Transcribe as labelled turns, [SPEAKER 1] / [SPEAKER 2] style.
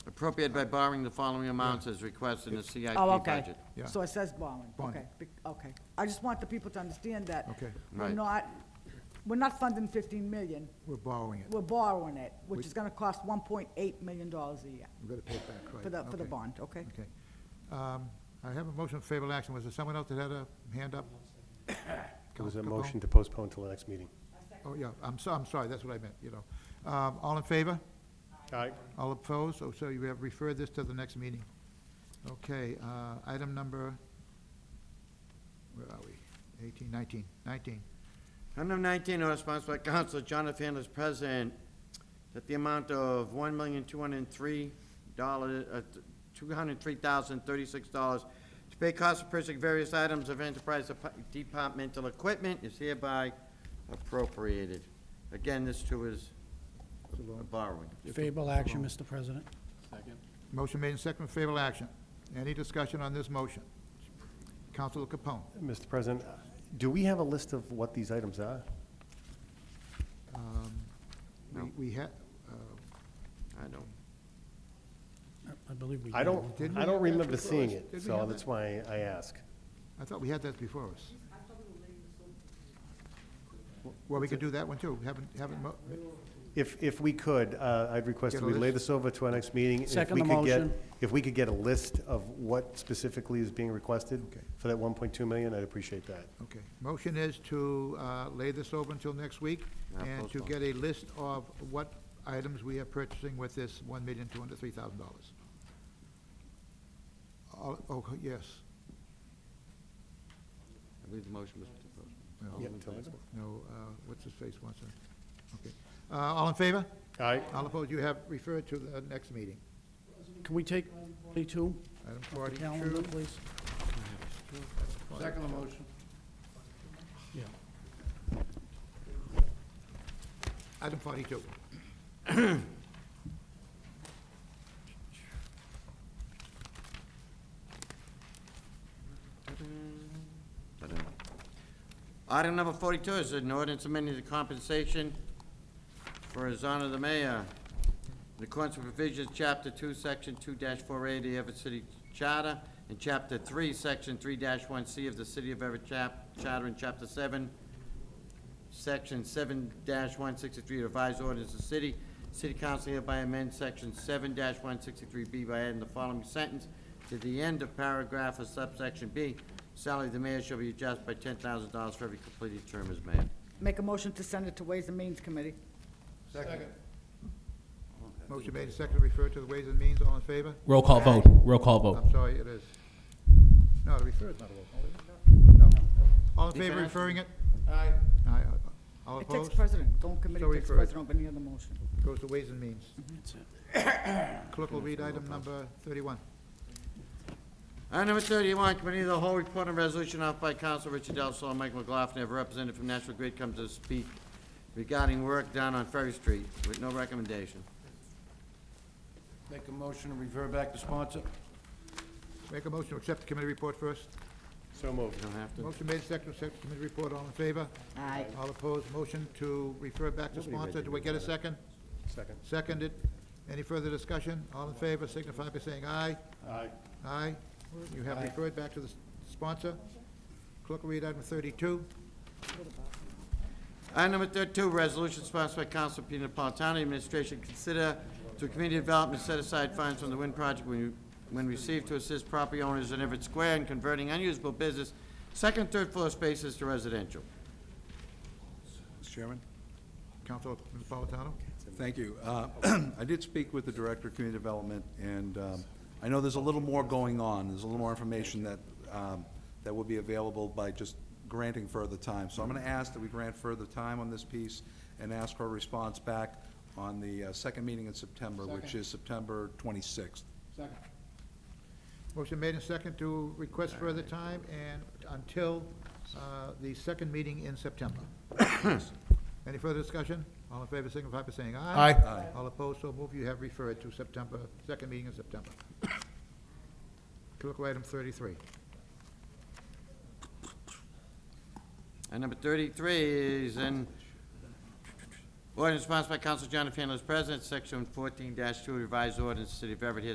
[SPEAKER 1] appropriate by borrowing the following amounts as requested in the CIP
[SPEAKER 2] Oh, okay.
[SPEAKER 1] budget.
[SPEAKER 3] Yeah.
[SPEAKER 2] So it says borrowing,
[SPEAKER 3] Bond.
[SPEAKER 2] okay, Be- okay. I just want the people to understand that.
[SPEAKER 3] Okay.
[SPEAKER 2] We're
[SPEAKER 1] Right.
[SPEAKER 2] not, we're not funding fifteen million,
[SPEAKER 3] We're borrowing it.
[SPEAKER 2] we're borrowing it, which is gonna cost one point eight million dollars a year
[SPEAKER 3] We've got to pay it back, right?
[SPEAKER 2] for the, for the
[SPEAKER 3] Okay.
[SPEAKER 2] bond, okay?
[SPEAKER 3] Okay. Um, I have a motion of favorable action. Was there someone else that had a hand up?
[SPEAKER 4] There was a
[SPEAKER 3] Capone?
[SPEAKER 4] motion to postpone till the next meeting.
[SPEAKER 3] Oh, yeah, I'm so, I'm sorry, that's what I meant, you know. Um, all in favor?
[SPEAKER 4] Aye.
[SPEAKER 3] All opposed? Oh, So, so you have referred this to the next meeting. Okay, uh, item number, where are we? Eighteen, nineteen, nineteen.
[SPEAKER 1] Item nineteen, order sponsored by Counselor Jonathan as president, that the amount of one million, two hundred and three dollars, uh, two hundred and three thousand, thirty-six dollars to pay costs of purchasing various items of enterprise dep- departmental equipment is hereby appropriated. Again, this too is a borrowing.
[SPEAKER 5] Favorable action, Mr. President.
[SPEAKER 3] Motion made in second, with favorable action. Any discussion on this motion? Counselor Capone?
[SPEAKER 4] Mr. President, do we have a list of what these items are?
[SPEAKER 3] Um, we-
[SPEAKER 1] No.
[SPEAKER 3] We had, uh,
[SPEAKER 1] I don't,
[SPEAKER 5] I believe we.
[SPEAKER 4] I don't,
[SPEAKER 3] Didn't we
[SPEAKER 4] I
[SPEAKER 3] have
[SPEAKER 4] don't
[SPEAKER 3] that
[SPEAKER 4] remember
[SPEAKER 3] before
[SPEAKER 4] seeing
[SPEAKER 3] us?
[SPEAKER 4] it,
[SPEAKER 3] Didn't we
[SPEAKER 4] so
[SPEAKER 3] have
[SPEAKER 4] that's
[SPEAKER 3] that?
[SPEAKER 4] why I ask.
[SPEAKER 3] I thought we had that before us. Well, we could do that one too. Haven't, haven't, mo-
[SPEAKER 4] If, if we could, uh, I'd request
[SPEAKER 3] Get
[SPEAKER 4] that
[SPEAKER 3] a
[SPEAKER 4] we lay
[SPEAKER 3] list?
[SPEAKER 4] this over to our next meeting. and if
[SPEAKER 5] Second
[SPEAKER 4] we
[SPEAKER 5] the
[SPEAKER 4] could get-
[SPEAKER 5] motion.
[SPEAKER 4] If we could get a list of what specifically is being requested
[SPEAKER 3] Okay.
[SPEAKER 4] for that 1.2 million, I'd appreciate that.
[SPEAKER 3] okay. Motion is to uh, lay this over until next week
[SPEAKER 1] Yeah,
[SPEAKER 3] and to
[SPEAKER 1] postpone.
[SPEAKER 3] get a list of what items we are purchasing with this one million, two hundred, three thousand dollars. Oh, yes.
[SPEAKER 1] I believe the motion was to postpone.
[SPEAKER 3] No,
[SPEAKER 4] Yeah, until next one.
[SPEAKER 3] No, uh, what's his face wants to, okay. Uh, All in favor?
[SPEAKER 4] Aye.
[SPEAKER 3] All opposed? You have referred to the next meeting.
[SPEAKER 5] Can we take 42
[SPEAKER 3] Item
[SPEAKER 5] off the calendar,
[SPEAKER 3] forty-two.
[SPEAKER 5] please?
[SPEAKER 3] Second motion.
[SPEAKER 5] Yeah.
[SPEAKER 3] Item forty-two.
[SPEAKER 1] Item number forty-two is an ordinance amending the compensation for his honor the mayor. In accordance with provisions, chapter two, section two four A of the Everett City Charter, and chapter three, section three one C of the City of Everett chap, charter, and chapter seven, Section seven one sixty-three of the revised ordinance of the city. City council hereby amends section seven one sixty-three B by adding the following sentence to the end of paragraph of subsection B. Salary of the mayor shall be adjusted by ten thousand dollars for every completed term as mayor.
[SPEAKER 2] Make a motion to send it to Ways and Means Committee.
[SPEAKER 3] Motion made and seconded, refer to the Ways and Means, all in favor?
[SPEAKER 6] Roll call vote, roll call
[SPEAKER 4] Oh.
[SPEAKER 6] vote.
[SPEAKER 3] I'm sorry, it is. No, the refer is not a roll call, is it? No. All in favor of referring it? Aye. Aye, uh, all
[SPEAKER 2] It takes
[SPEAKER 3] opposed?
[SPEAKER 2] president, don't committee
[SPEAKER 3] So
[SPEAKER 2] takes
[SPEAKER 3] referred.
[SPEAKER 2] president over any other motion.
[SPEAKER 3] Goes to Ways and Means.
[SPEAKER 5] That's it.
[SPEAKER 3] Clerk will read item number thirty-one.
[SPEAKER 1] Item number thirty-one, committee of the whole report and resolution offered by Council Richard Del Sol, Mike McLaughlin, have represented from National Grid comes to speak regarding work down on Ferry Street with no recommendation.
[SPEAKER 7] Make a motion to refer back to sponsor.
[SPEAKER 3] Make a motion to accept the committee report first.
[SPEAKER 4] So moved.
[SPEAKER 1] You don't have to.
[SPEAKER 3] Motion made and seconded, accept the committee report, all in favor?
[SPEAKER 2] Aye.
[SPEAKER 3] All opposed, motion to refer back to
[SPEAKER 4] Nobody read
[SPEAKER 3] sponsor,
[SPEAKER 4] the
[SPEAKER 3] do I get a second?
[SPEAKER 4] Second.
[SPEAKER 3] Seconded. Any further discussion? All in favor, signify by saying aye.
[SPEAKER 4] Aye.
[SPEAKER 3] Aye. You have referred back to the s- sponsor. Clerk will read item thirty-two.
[SPEAKER 1] Item number thirty-two, resolution sponsored by Council Pete Napolitano, administration consider to community development set aside funds from the wind project when, when received to assist property owners in Everett Square in converting unusable business, second, third floor spaces to residential.
[SPEAKER 7] Mr. Chairman?
[SPEAKER 3] Councilor Napolitano?
[SPEAKER 7] Thank you. Uh, I did speak with the Director of Community Development, and um, I know there's a little more going on. There's a little more information that, um, that will be available by just granting further time. So I'm going to ask that we grant further time on this piece and ask for a response back on the uh, second meeting in September, which is September 26th.
[SPEAKER 3] Motion made and second to request further time and until uh, the second meeting in September. Any further discussion? All in favor, signify by saying aye. Aye. All opposed, so move. You have referred to September, second meeting in September. Clerk will read item thirty-three.
[SPEAKER 1] And number thirty-three is an ordinance sponsored by Council Jonathan Fandler as president, section fourteen two, revised ordinance, City of Everett, here